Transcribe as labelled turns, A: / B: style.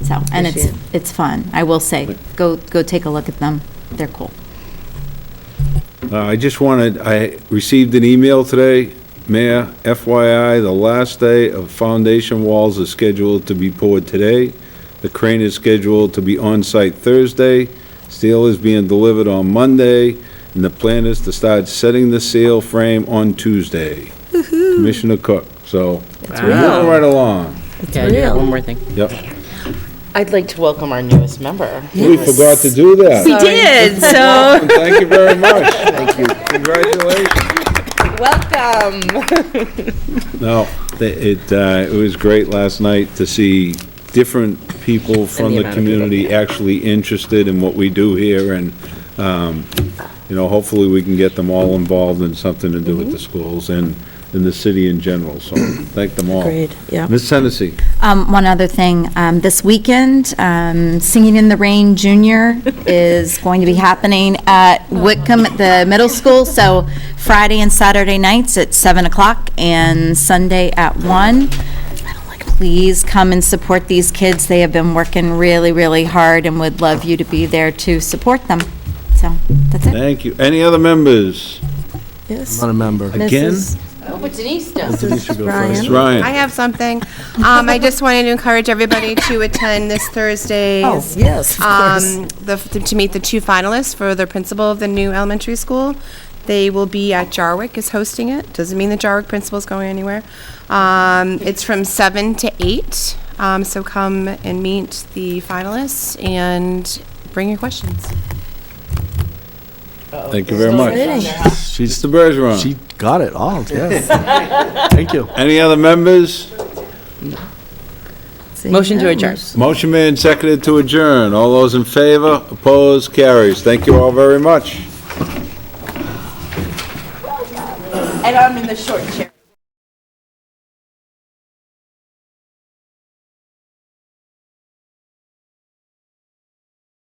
A: so, and
B: This
A: it's,
B: year.
A: it's fun, I will say. Go, go take a look at them, they're cool.
C: Uh, I just wanted, I received an email today, Mayor, FYI, the last day of foundation walls is scheduled to be poured today. The crane is scheduled to be on site Thursday. Steel is being delivered on Monday, and the plan is to start setting the seal frame on Tuesday. Commissioner Cook, so we're moving right
D: Yeah,
C: along.
D: I do have
B: real.
D: one more thing.
C: Yep.
D: I'd like to welcome our newest member.
C: We forgot to do that.
B: We did, so.
C: Welcome, Thank you very much. Thank you. Congratulations.
D: Welcome.
C: No, the- it, uh, it was great last night to see different people from
D: the
C: the
D: amount of people.
C: community actually interested in what we do here, and, um, you know, hopefully we can get them all involved in something to do with the
D: Mm-hmm.
C: schools and, and the city in general, so thank them all.
B: Agreed, yeah.
C: Ms. Hennessy,
A: Um, one other thing, um, this weekend, um, Singing in the Rain Junior is going to be happening at Whitcomb, at the middle school, so Friday and Saturday nights at seven o'clock and Sunday at one. Please come and support these kids, they have been working really, really hard and would love you to be there to support them. So, that's it.
C: thank you. Any other members?
B: Yes.
E: Not a member.
C: Again?
B: Mrs.
C: Ms.
B: Ryan.
C: Ryan?
F: I have something. Um, I just wanted to encourage everybody to attend this Thursday's.
B: Oh, yes, of course.
F: um, the, to meet the two finalists for the principal of the new elementary school. They will be at Jarwick is hosting it. Doesn't mean the Jarwick principal's going anywhere. Um, it's from seven to eight. Um, so come and meet the finalists and bring your questions.
C: Thank you very much. Mr.
E: She
C: Bergeron?
E: got it all, yes. Thank you.
C: Any other members?
D: Motion to adjourn.
C: Motion made and seconded to adjourn. All those in favor, opposed, carries. Thank you all very much.
G: And I'm in the short chair.